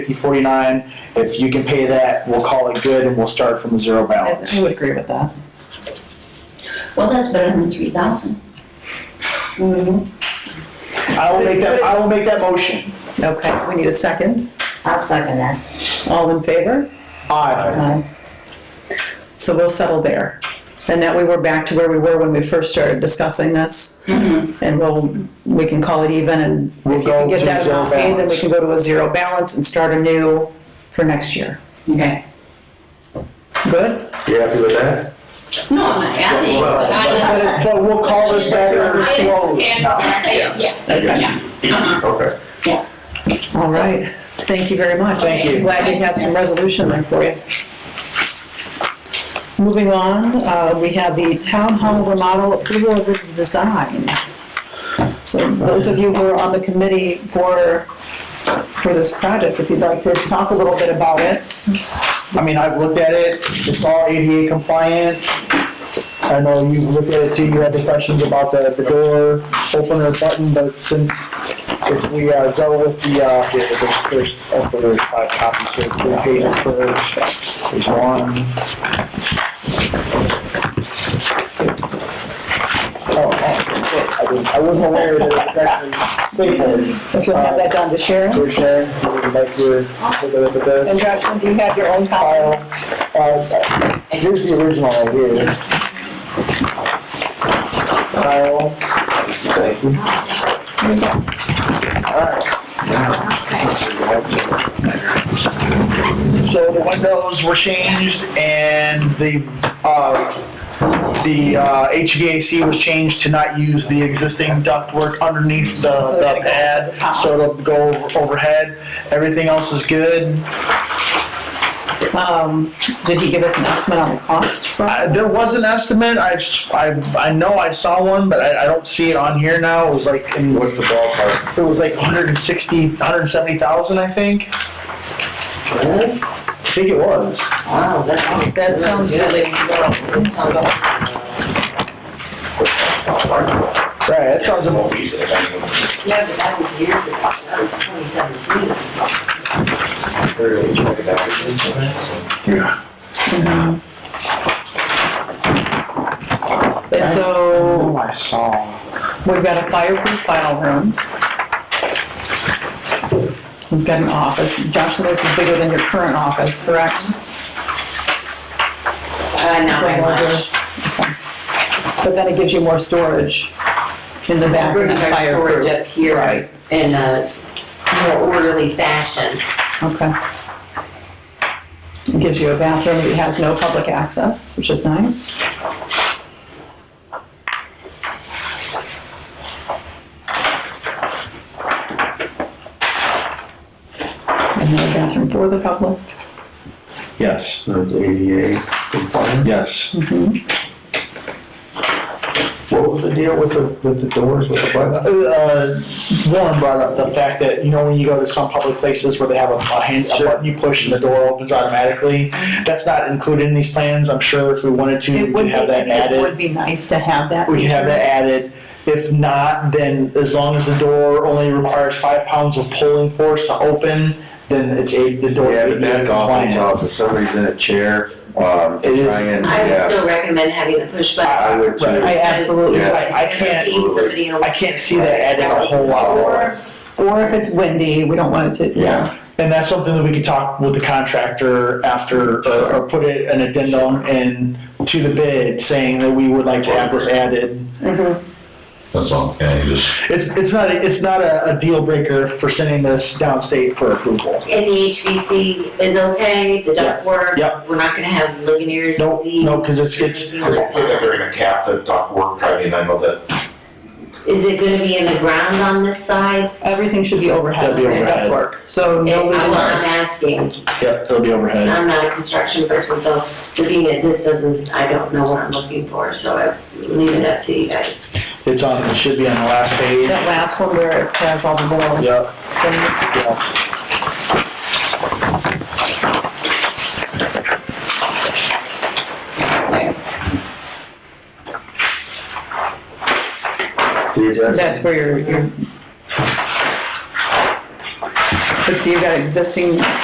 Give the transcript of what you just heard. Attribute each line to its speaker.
Speaker 1: 5049. If you can pay that, we'll call it good and we'll start from a zero
Speaker 2: I I
Speaker 1: balance.
Speaker 2: would agree with that.
Speaker 3: Well, that's better than three thousand.
Speaker 1: I will make that, I will make that motion.
Speaker 2: Okay, we need a second.
Speaker 3: I'll second that.
Speaker 2: All in favor?
Speaker 1: Aye.
Speaker 3: Uh,
Speaker 2: So we'll settle there. And that way we're back to where we were when we first started discussing this. And we'll, we can call it even and
Speaker 1: Mm-hmm. We'll
Speaker 2: if you can
Speaker 1: go
Speaker 2: get
Speaker 1: to
Speaker 2: that
Speaker 1: zero
Speaker 2: amount paid, then we
Speaker 1: balance.
Speaker 2: can go to a zero balance and start anew for next year.
Speaker 3: Okay.
Speaker 2: Good?
Speaker 4: You happy with that?
Speaker 3: No, I'm not happy, but I.
Speaker 1: But it's- but we'll call this matter as closed.
Speaker 3: Yeah, yeah. Uh-huh.
Speaker 4: Okay.
Speaker 2: All right. Thank you very much.
Speaker 1: Thank you.
Speaker 2: Glad you have some resolution there for you. Moving on, uh, we have the town hall remodel approval of the design. So those of you who are on the committee for, for this project, if you'd like to talk a little bit about it.
Speaker 1: I mean, I've looked at it. It's all ADA compliant. I know you looked at it too. You had the questions about the, the door opener button, but since if we uh, go with the, uh, the the first, oh, there's five copies, so two pages per, there's one. Oh, oh, I didn't- I wasn't aware that it was actually stapled.
Speaker 2: If you'll have that done to Sharon.
Speaker 1: For Sharon, would you like to take a look at this?
Speaker 2: And Justin, do you have your own
Speaker 1: file,
Speaker 2: copy?
Speaker 1: uh, here's the original right here. File. Thank you. Alright. So the windows were changed and the, uh, the uh, HVAC was changed to not use the existing ductwork underneath the
Speaker 2: So
Speaker 1: the
Speaker 2: it'll go over
Speaker 1: pad,
Speaker 2: the top.
Speaker 1: so it'll go overhead. Everything else is good.
Speaker 2: Um, did he give us an estimate on the cost? for
Speaker 1: I-
Speaker 2: it?
Speaker 1: There was an estimate, I, s- I- I know I saw one, but I, I don't see it on here now, it was like, in-
Speaker 4: What's the ballpark?
Speaker 1: it was like 160, 170,000, I think. I think it was.
Speaker 3: Wow, that's.
Speaker 2: That sounds really low.
Speaker 1: Right, that sounds about,
Speaker 3: Yeah, but that was years ago, that was twenty seventeen.
Speaker 4: Yeah.
Speaker 2: And so
Speaker 1: oh, I saw.
Speaker 2: We've got a fireproof file room. We've got an office. Joshua, this is bigger than your current office, correct?
Speaker 3: Uh, not very much.
Speaker 2: Okay. But then it gives you more storage in the back of
Speaker 3: Brings
Speaker 2: that
Speaker 3: our storage
Speaker 2: fireproof.
Speaker 3: up here
Speaker 2: Right.
Speaker 3: in a more orderly fashion.
Speaker 2: Okay. It gives you a bathroom that has no public access, which is nice. Another bathroom for the public.
Speaker 5: Yes,
Speaker 4: So it's ADA compliant.
Speaker 5: yes.
Speaker 4: What was the deal with the, with the doors with the button?
Speaker 1: Uh, Warren brought up the fact that, you know, when you go to some public places where they have a, a hand, a button you push and the door opens automatically, that's not included in these plans, I'm sure if we wanted to, we
Speaker 2: It would
Speaker 1: could
Speaker 2: be,
Speaker 1: have that added.
Speaker 2: it would be nice to have that.
Speaker 1: we can have
Speaker 2: feature.
Speaker 1: that added. If not, then as long as the door only requires five pounds of pulling force to open, then it's a, the door's
Speaker 4: Yeah, but
Speaker 1: ADA
Speaker 4: that's awful tough. If
Speaker 1: compliant.
Speaker 4: somebody's in a chair, um,
Speaker 1: It is-
Speaker 4: trying and,
Speaker 3: I would
Speaker 4: yeah.
Speaker 3: still recommend having the push
Speaker 4: I
Speaker 3: button.
Speaker 4: would too.
Speaker 1: Right.
Speaker 2: I absolutely,
Speaker 4: Yeah.
Speaker 2: would.
Speaker 1: I- I can't-
Speaker 3: Seeing somebody in a-
Speaker 1: I can't see that adding a whole lot
Speaker 2: Or,
Speaker 1: more.
Speaker 2: or if it's windy, we don't want it to,
Speaker 4: Yeah.
Speaker 1: And that's something that we could talk with the contractor after, or, or put it an addendum in to the bid saying that we would like to have this added.
Speaker 2: Mm-hmm.
Speaker 6: That's all, yeah, you just,
Speaker 1: It's, it's not, a- it's not a, a deal breaker for sending this downstate for approval.
Speaker 3: And the HVC is okay, the ductwork?
Speaker 1: Yep.
Speaker 3: We're not gonna have Legionnaires
Speaker 1: Nope,
Speaker 3: disease?
Speaker 1: no, 'cause it's- it's-
Speaker 3: anything
Speaker 6: I
Speaker 3: like
Speaker 6: don't think that
Speaker 3: that.
Speaker 6: they're gonna cap the dock work, I mean, I know that,
Speaker 3: Is it gonna be in the ground on this side?
Speaker 2: everything should be overhead.
Speaker 1: That'd be
Speaker 2: like
Speaker 1: overhead.
Speaker 2: ductwork. So no
Speaker 3: And I- well, I'm
Speaker 2: windows.
Speaker 3: asking,
Speaker 1: Yep, it'll be overhead.
Speaker 3: 'cause I'm not a construction person, so looking at this doesn't, I don't know what I'm looking for, so I leave it up to you guys.
Speaker 1: It's on, it should be on the last page.
Speaker 2: That last one where it has all the little
Speaker 1: Yep.
Speaker 2: things.
Speaker 1: Yes.
Speaker 4: See, that's-
Speaker 2: That's where your, your. But so you've got existing